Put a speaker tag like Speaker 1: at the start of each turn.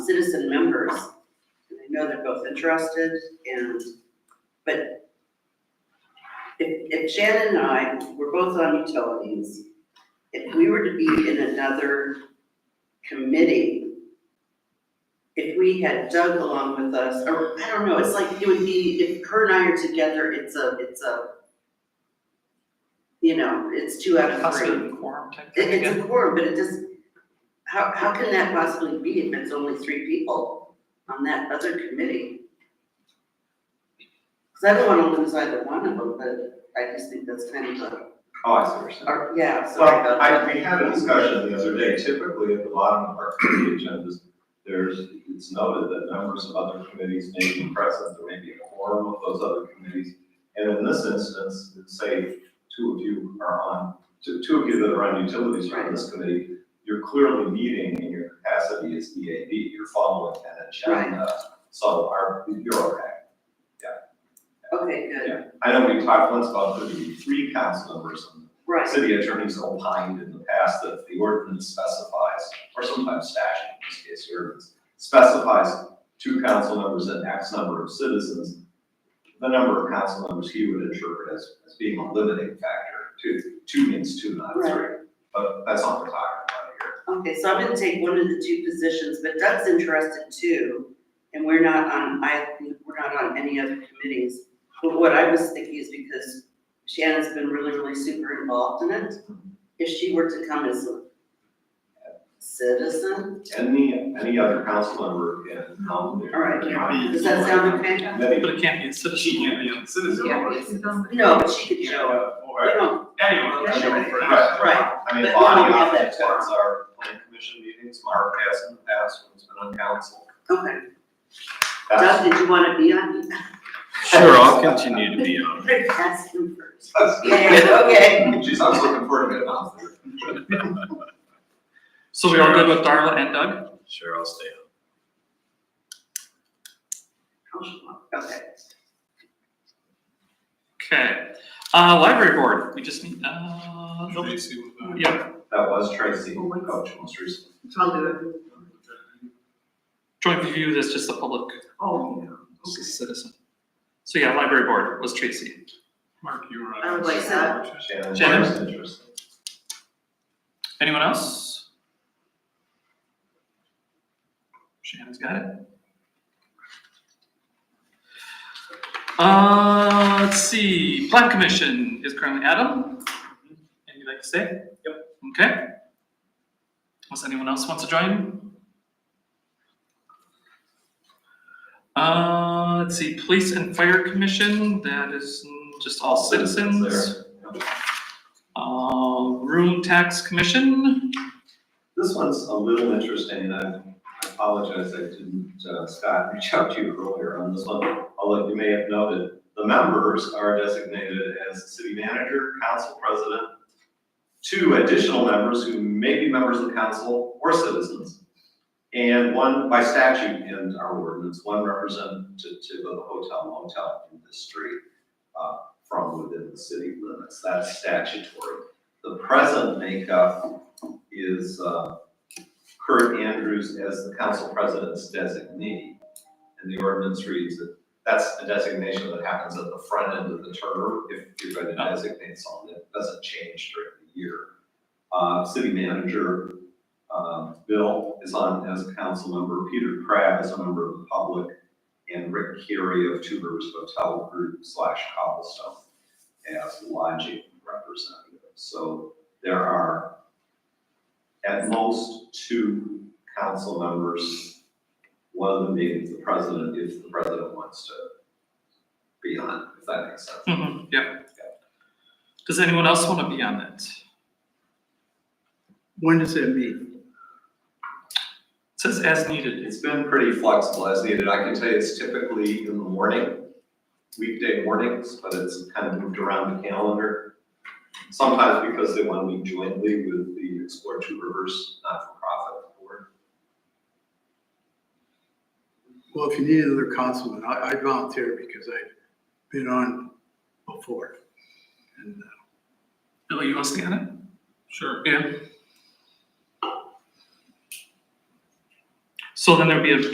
Speaker 1: citizen members. And I know they're both interested and, but if, if Shannon and I were both on utilities, if we were to be in another committee, if we had Doug along with us, or I don't know, it's like it would be, if her and I are together, it's a, it's a, you know, it's two out of three.
Speaker 2: Possibly quorum type
Speaker 1: It,
Speaker 2: thing,
Speaker 1: it's
Speaker 2: yeah.
Speaker 1: a quorum, but it just, how, how can that possibly be if it's only three people on that other committee? Cause I don't wanna lose either one of them, but I just think that's kind of a,
Speaker 3: Oh, I see what you're saying.
Speaker 1: or, yeah, so I
Speaker 3: Well,
Speaker 1: thought.
Speaker 3: I, we had a discussion the other day, typically at the bottom of our committee agendas, there's, it's noted that members of other committees may be present, there may be a quorum of those other committees. And in this instance, let's say two of you are on, two, two of you that are on utilities are on this committee, you're clearly meeting in your capacity as EAB, you're following an agenda. So our, you're okay.
Speaker 1: Okay, good,
Speaker 3: I know we talked once about there being three council members on the
Speaker 1: right.
Speaker 3: City attorneys opined in the past that the ordinance specifies, or sometimes statute, in this case, the ordinance, specifies two council members and X number of citizens. The number of council members he would interpret as, as being a limiting factor. Two, two means two, not three. But that's not what we're talking about here.
Speaker 1: Okay, so I'm gonna take one of the two positions, but Doug's interested too, and we're not on, I, we're not on any other committees. But what I was thinking is because Shannon's been really, really super involved in it, if she were to come as a citizen,
Speaker 3: Any, any other council member in, um,
Speaker 1: all right, does that sound okay?
Speaker 3: Maybe.
Speaker 2: But it can't be a citizen.
Speaker 4: She can't be a citizen.
Speaker 5: Yeah, it's on the-
Speaker 1: No, but she could show up,
Speaker 3: Yeah,
Speaker 1: we
Speaker 3: or-
Speaker 1: don't,
Speaker 4: Anyone can show up for that.
Speaker 3: Right, right. I mean, Bonnie often attends our plan commission meetings, Mark has in the past when he's been on council.
Speaker 1: okay.
Speaker 3: That's-
Speaker 1: Doug, did you wanna be on?
Speaker 6: Sure, I'll continue to be on.
Speaker 1: Rick, ask him first.
Speaker 3: that's-
Speaker 1: Yeah, okay.
Speaker 3: Jeez, I was looking forward to it, honestly.
Speaker 2: So we all good with Darla and Doug?
Speaker 6: Sure, I'll stay on.
Speaker 1: Okay.
Speaker 2: Okay. Uh, library board, we just need, uh, nope.
Speaker 4: Tracy was on.
Speaker 2: yeah,
Speaker 3: That was Tracy, who coached most recently.
Speaker 5: I'll do it.
Speaker 2: joint review, that's just the public,
Speaker 5: Oh,
Speaker 2: this is citizen. So yeah, library board was Tracy.
Speaker 4: Mark, you were on.
Speaker 1: Oh,
Speaker 5: I would like that.
Speaker 3: Shannon,
Speaker 2: Shannon.
Speaker 3: that's interesting.
Speaker 2: Anyone else? Shannon's got it. Uh, let's see, plan commission is currently Adam. And you'd like to stay? Yep. Okay. Unless anyone else wants to join? Uh, let's see, police and fire commission, that is mm, just all citizens.
Speaker 3: there.
Speaker 2: Uh, room tax commission,
Speaker 3: This one's a little interesting, and I I apologize, I didn't, uh, Scott, reach out to you earlier on this one. Although you may have noted, the members are designated as city manager, council president, two additional members who may be members of council or citizens, and one by statute in our ordinance, one representative of the hotel motel industry uh, from within the city limits. That's statutory. The present makeup is uh, Kurt Andrews as the council president's designee. And the ordinance reads that that's a designation that happens at the front end of the term if you're going to designate someone. It doesn't change during the year. Uh, City manager uh, Bill is on as a council member. Peter Crabb is a member of the public. And Rick Carey of Two Rivers Hotel Group slash Cobblestone as lodging representative. So there are at most two council members, one of them being the president, if the president wants to be on, if that makes sense.
Speaker 2: Mhm, yeah. Does anyone else want to be on that? It
Speaker 7: When does it meet?
Speaker 2: says as needed.
Speaker 3: It's been pretty flexible as needed. I can tell you it's typically in the morning, weekday mornings, but it's kind of moved around the calendar. Sometimes because they want to meet jointly with the Explore Two Rivers not-for-profit board.
Speaker 7: Well, if you need another councilman, I, I volunteer because I've been on before. And uh,
Speaker 2: Bill, you want to stay on it?
Speaker 4: Sure.
Speaker 2: Yeah. So then there'd be a